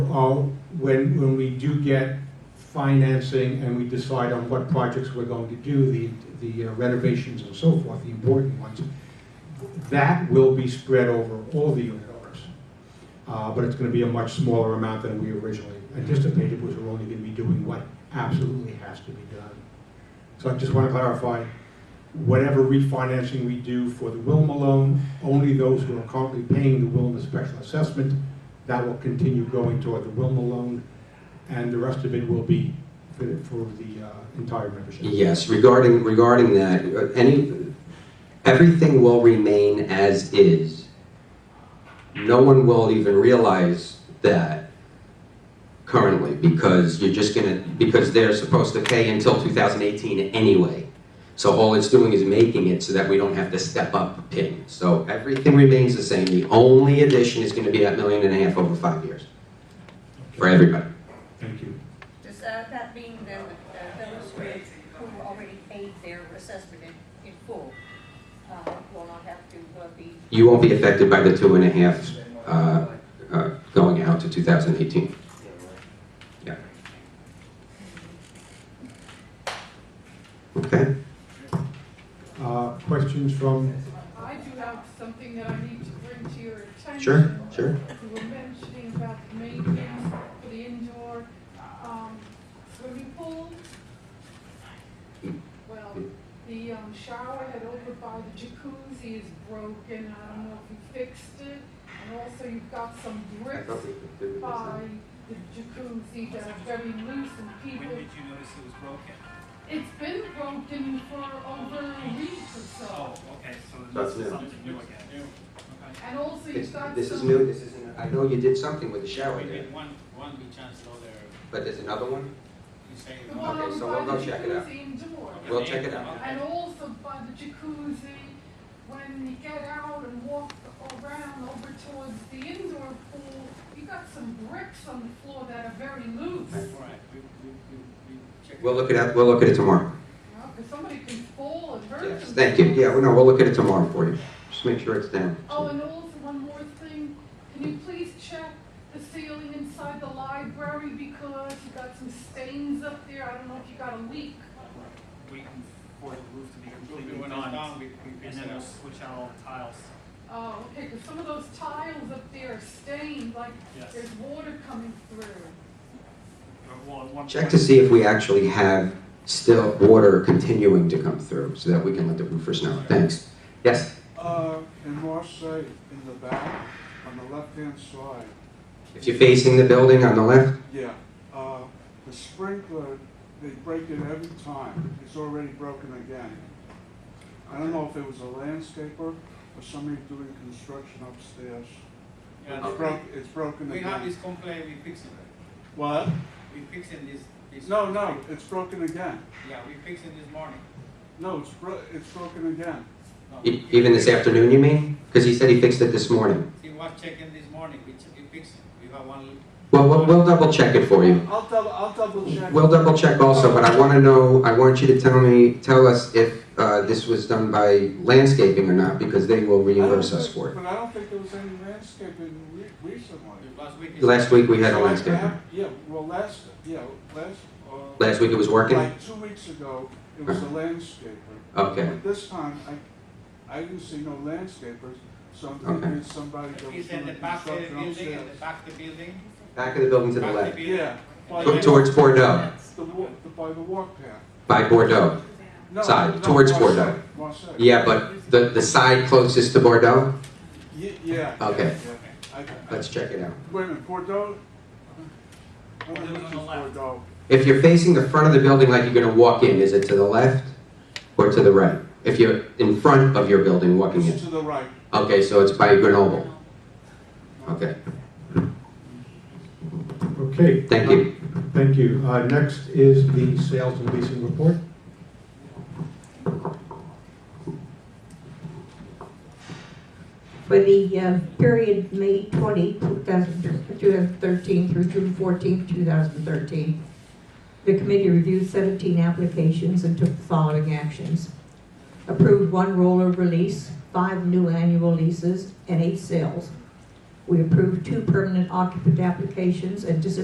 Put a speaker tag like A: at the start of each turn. A: uh, when, when we do get financing and we decide on what projects we're going to do, the, the uh, renovations and so forth, the important ones, that will be spread over all the unit owners. Uh, But it's going to be a much smaller amount than we originally anticipated, because we're only going to be doing what absolutely has to be done. So I just want to clarify, whatever refinancing we do for the Wilma loan, only those who are currently paying the Wilma special assessment, that will continue going toward the Wilma loan, and the rest of it will be for the for the, uh, entire membership.
B: Yes, regarding, regarding that, uh, any, everything will remain as is. No one will even realize that currently, because you're just gonna, because they're supposed to pay until 2018 anyway. So all it's doing is making it so that we don't have to step up a pin. So everything remains the same, the only addition is gonna be that million and a half over five years, for everybody.
A: Thank you.
C: Does uh, that mean then that uh, those who who already paid their assessment in, in full uh, will not have to uh, be,
B: You won't be affected by the two and a half uh, uh, going out to 2018. Yeah. Okay,
A: Uh, Questions from,
D: I do have something that I need to bring to your attention.
B: sure, sure.
D: You were mentioning about the maintenance for the indoor, um, swimming pool. Well, the, um, shower head over by the jacuzzi is broken, I don't know if you fixed it. And also you've got some bricks by the jacuzzi that are very loose and
E: When
D: people,
E: did you notice it was broken?
D: it's been broken for over a week or so.
E: Oh, okay, so
B: That's
E: this is
B: new.
E: something new again. Okay.
D: And also
B: This
D: you've got some.
B: this is new, this is, I know you did something with the shower
E: We
B: there,
E: did one, one we chanced over there,
B: but there's another one?
E: you say.
D: The one
B: Okay,
D: over
B: so
D: by
B: we'll
D: the
B: go check it out.
D: jacuzzi indoor.
B: We'll check it out.
D: And also by the jacuzzi, when you get out and walk around over towards the indoor pool, you got some bricks on the floor that are very loose.
E: All right, we, we, we, we check it
B: We'll look it up, we'll look at it tomorrow.
D: Because somebody can fall and hurt
B: Yes,
D: themselves.
B: thank you, yeah, well, no, we'll look at it tomorrow for you, just make sure it's down.
D: Oh, and also one more thing, can you please check the ceiling inside the library because you got some stains up there, I don't know if you got a leak.
E: out. We can, for the roof to be completely
F: When it's done,
E: done,
F: we, we
E: and
F: reset
E: then we'll
F: it.
E: switch out all the tiles,
D: Oh, okay, because some of those tiles up there are stained, like
E: yes.
D: There's water coming through.
E: Or, Well, at one
B: Check
E: point-
B: to see if we actually have still water continuing to come through, so that we can let the roofers know, thanks. Yes?
G: Uh, in Marseille, in the back, on the left-hand side,
B: If you're facing the building on the left,
G: yeah, uh, the sprinkler, they break it every time. It's already broken again. I don't know if it was a landscaper or somebody doing construction upstairs.
E: Yeah,
G: It's broke, it's broken
F: We have
G: again.
F: this complaint, we fix it.
G: What?
F: We fixing this, this.
G: No, no, it's broken again.
F: Yeah, we fixing this morning.
G: No, it's bro, it's broken again.
F: No,
B: e- even this afternoon, you mean? Because he said he fixed it this morning.
F: He was checking this morning, we, ch- we fixed it. We have one,
B: Well, we'll, we'll double check it for you.
G: I'll double, I'll double check.
B: We'll double check also, but I want to know, I want you to tell me, tell us if uh, this was done by landscaping or not, because they will
G: I don't
B: reimburse us
G: think-
B: for it.
G: But I don't think there was any landscaping re- recently.
F: it was week. is-
B: Last week, we had a
G: So I
B: landscaper.
G: have- Yeah, well, last, yeah, last, uh.
B: Last week, it was working?
G: Like two weeks ago, it was a landscaper.
B: Okay,
G: But this time, I, I didn't see no landscapers, so I'm
B: Okay.
G: thinking it's somebody that was
F: It's in
G: doing
F: the back of the
G: construction
F: building, in
G: upstairs.
F: the back of the building.
B: back of the building to the
F: back of
B: left,
F: building.
G: Yeah.
F: And
B: Go
F: then-
B: towards Bordeaux,
G: The wa, the, by the walk path.
B: by Bordeaux.
G: No,
B: Side,
G: no,
B: towards
G: Marseille,
B: Bordeaux.
G: Marseille.
B: Yeah, but the, the side closest to Bordeaux?
G: Ye- Yeah.
B: Okay.
G: yeah, I, I,
B: Let's check it out.
G: wait a minute, Bordeaux? I don't
E: Bordeaux's
G: think
E: on
G: it's
E: the left.
G: Bordeaux.
B: If you're facing the front of the building like you're gonna walk in, is it to the left or to the right? If you're in front of your building walking
G: It's
B: in.
G: to the right.
B: Okay, so it's by Grenoble. Okay,
A: okay.
B: thank you.
A: Thank you. Uh, Next is the sales and leasing report.
H: For the uh, period May 20, 2013 through June 14, 2013, the committee reviewed 17 applications and took the following actions. Approved one roller release, five new annual leases, and eight sales. We approved two permanent occupant applications and dis-